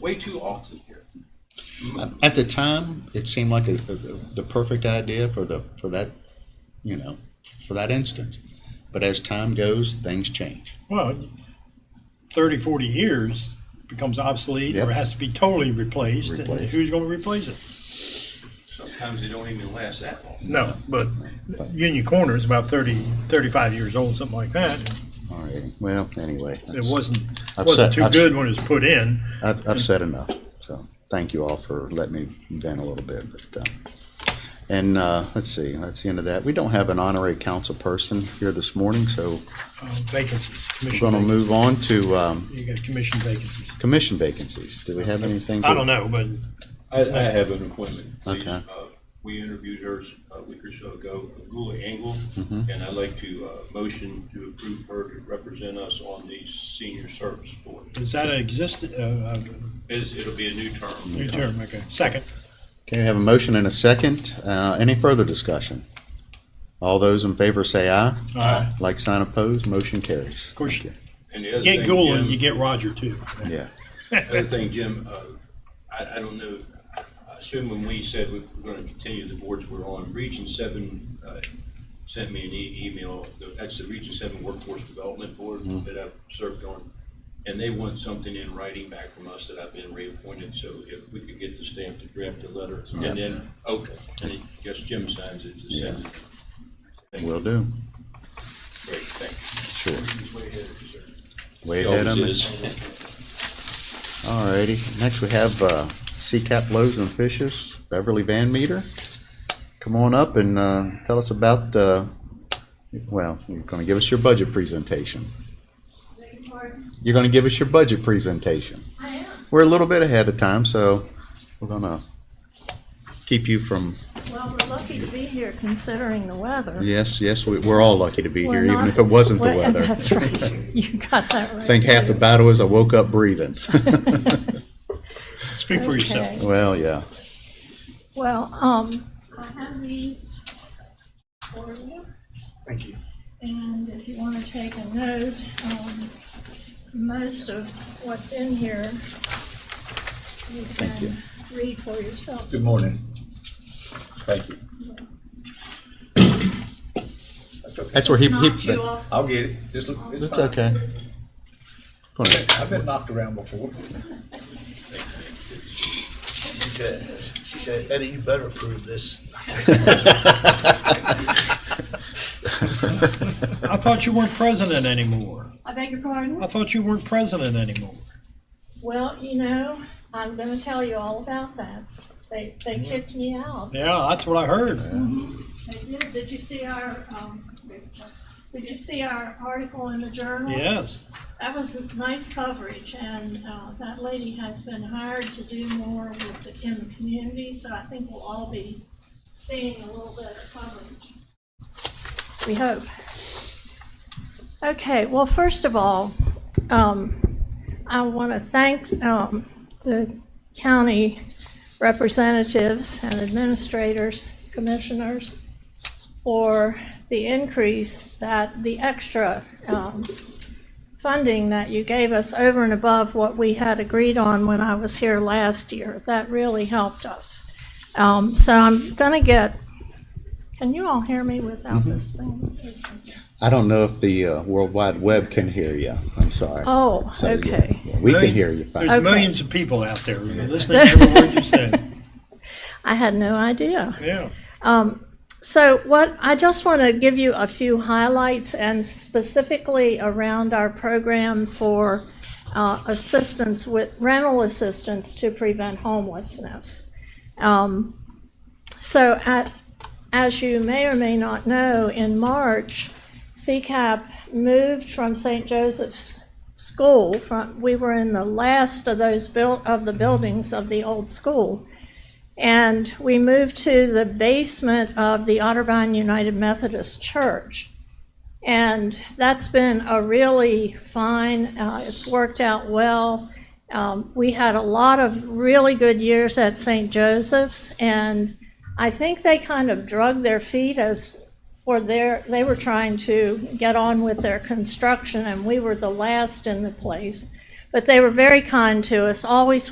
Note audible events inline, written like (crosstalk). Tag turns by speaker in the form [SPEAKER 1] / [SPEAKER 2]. [SPEAKER 1] way too often here.
[SPEAKER 2] At the time, it seemed like a, the, the perfect idea for the, for that, you know, for that instance. But as time goes, things change.
[SPEAKER 3] Well, 30, 40 years becomes obsolete or
[SPEAKER 2] Yep.
[SPEAKER 3] has to be totally replaced. and
[SPEAKER 2] Replaced.
[SPEAKER 3] Who's going to replace it?
[SPEAKER 1] Sometimes they don't even last that long.
[SPEAKER 3] No, but Union Corner is about 30, 35 years old, something like that.
[SPEAKER 2] All right, well, anyway.
[SPEAKER 3] It
[SPEAKER 2] that's-
[SPEAKER 3] wasn't,
[SPEAKER 2] I've said-
[SPEAKER 3] wasn't too
[SPEAKER 2] I've-
[SPEAKER 3] good when it was put in.
[SPEAKER 2] I've, I've said enough, so thank you all for letting me vent a little bit, but, uh, and, uh, let's see, that's the end of that. We don't have an honorary council person here this morning, so
[SPEAKER 3] Uh, Vacancies,
[SPEAKER 2] we're
[SPEAKER 3] commission
[SPEAKER 2] gonna
[SPEAKER 3] vacancies.
[SPEAKER 2] move on to, um,
[SPEAKER 3] You got commission vacancies.
[SPEAKER 2] commission vacancies. Do we have anything?
[SPEAKER 3] I don't know, but
[SPEAKER 4] I, I have an appointment.
[SPEAKER 2] Okay.
[SPEAKER 4] Uh, We interviewed her uh, a week or so ago, Gula Engel, and I'd like to, uh, motion to approve her to represent us on the senior service board.
[SPEAKER 3] is that an existing, uh, uh,
[SPEAKER 4] It's, it'll be a new term.
[SPEAKER 3] new term, okay, second.
[SPEAKER 2] Okay, we have a motion and a second. Uh, any further discussion? All those in favor say aye.
[SPEAKER 3] Aye.
[SPEAKER 2] Like sign opposed, motion carries.
[SPEAKER 3] Of course, you
[SPEAKER 2] Thank
[SPEAKER 4] And the other
[SPEAKER 3] get
[SPEAKER 4] thing,
[SPEAKER 3] Gould,
[SPEAKER 4] Jim-
[SPEAKER 3] you get Roger too.
[SPEAKER 2] you. Yeah,
[SPEAKER 4] Other thing, Jim, uh, I, I don't know, I assume when we said we we're gonna continue the boards we're on, Region Seven, uh, sent me an e- email, that's the Region Seven Workforce Development Board
[SPEAKER 2] Mm-hmm.
[SPEAKER 4] that I've served on. And they want something in writing back from us that I've been reappointed, so if we could get the stamp to draft a letter, and
[SPEAKER 2] Yeah.
[SPEAKER 4] then, okay, and I guess Jim signs it to send it.
[SPEAKER 2] will do.
[SPEAKER 4] Great, thanks.
[SPEAKER 2] Sure.
[SPEAKER 4] Way ahead of you, sir.
[SPEAKER 2] Way ahead of me.
[SPEAKER 4] Always is. (laughs)
[SPEAKER 2] All righty. Next, we have, uh, Cap Loaves and Fishes, Beverly Van Meter. Come on up and, uh, tell us about, uh, well, you're gonna give us your budget presentation.
[SPEAKER 5] Beg your pardon?
[SPEAKER 2] You're gonna give us your budget presentation.
[SPEAKER 5] I am.
[SPEAKER 2] We're a little bit ahead of time, so we're gonna keep you from
[SPEAKER 5] Well, we're lucky to be here considering the weather.
[SPEAKER 2] Yes, yes, we, we're all lucky to be
[SPEAKER 5] We're
[SPEAKER 2] here, even
[SPEAKER 5] not-
[SPEAKER 2] if it wasn't the
[SPEAKER 5] Well,
[SPEAKER 2] weather.
[SPEAKER 5] (laughs) That's right. You got that right.
[SPEAKER 2] I think half the battle is I woke up
[SPEAKER 5] (laughs)
[SPEAKER 2] breathing. (laughs)
[SPEAKER 3] Speak for yourself.
[SPEAKER 5] Okay.
[SPEAKER 2] well, yeah.
[SPEAKER 5] (laughs) Well, um, I have these for you.
[SPEAKER 3] Thank you.
[SPEAKER 5] And if you want to take a note, um, most of what's in here, you can read for yourself.
[SPEAKER 6] Good morning. Thank you. That's okay.
[SPEAKER 2] That's where he. he
[SPEAKER 5] Knocked you off
[SPEAKER 6] I'll get it. Just look. it's
[SPEAKER 2] that's
[SPEAKER 6] fine.
[SPEAKER 2] okay. Go ahead.
[SPEAKER 6] I've been knocked around before.
[SPEAKER 7] She said, she said, Eddie, you better approve this.
[SPEAKER 3] I thought you weren't president anymore.
[SPEAKER 5] I beg your pardon?
[SPEAKER 3] I thought you weren't president anymore.
[SPEAKER 5] Well, you know, I'm going to tell you all about that. They, they kicked me out.
[SPEAKER 3] Yeah, that's what I heard.
[SPEAKER 5] I did, did you see our, um, did you see our article in the journal?
[SPEAKER 3] Yes.
[SPEAKER 5] That was nice coverage, and, uh, that lady has been hired to do more with, the- in the community, so I think we'll all be seeing a little bit of coverage. We hope. Okay, well, first of all, um, I want to thank, um, the county representatives and administrators, commissioners, for the increase that, the extra um, funding that you gave us over and above what we had agreed on when I was here last year. That really helped us. Um, So I'm going to get, can you all hear me without this thing?
[SPEAKER 2] (laughs) I don't know if the uh, World Wide Web can hear you. I'm sorry.
[SPEAKER 5] Oh,
[SPEAKER 2] So, yeah,
[SPEAKER 5] okay.
[SPEAKER 2] yeah, we can hear you fine.
[SPEAKER 3] There's
[SPEAKER 5] Okay.
[SPEAKER 3] millions of people out there who are listening to every word you say.
[SPEAKER 5] I had no idea.
[SPEAKER 3] Yeah.
[SPEAKER 5] So what, I just want to give you a few highlights and specifically around our program for uh, assistance with rental assistance to prevent homelessness. Um, So at, as you may or may not know, in March, CCAP moved from St. Joseph's School, from, we were in the last of those built, of the buildings of the old school. And we moved to the basement of the Otterbein United Methodist Church. And that's been a really fine, uh, it's worked out well. Um, we had a lot of really good years at St. Joseph's, and I think they kind of drug their feet as for their, they were trying to get on with their construction, and we were the last in the place. But they were very kind to us, always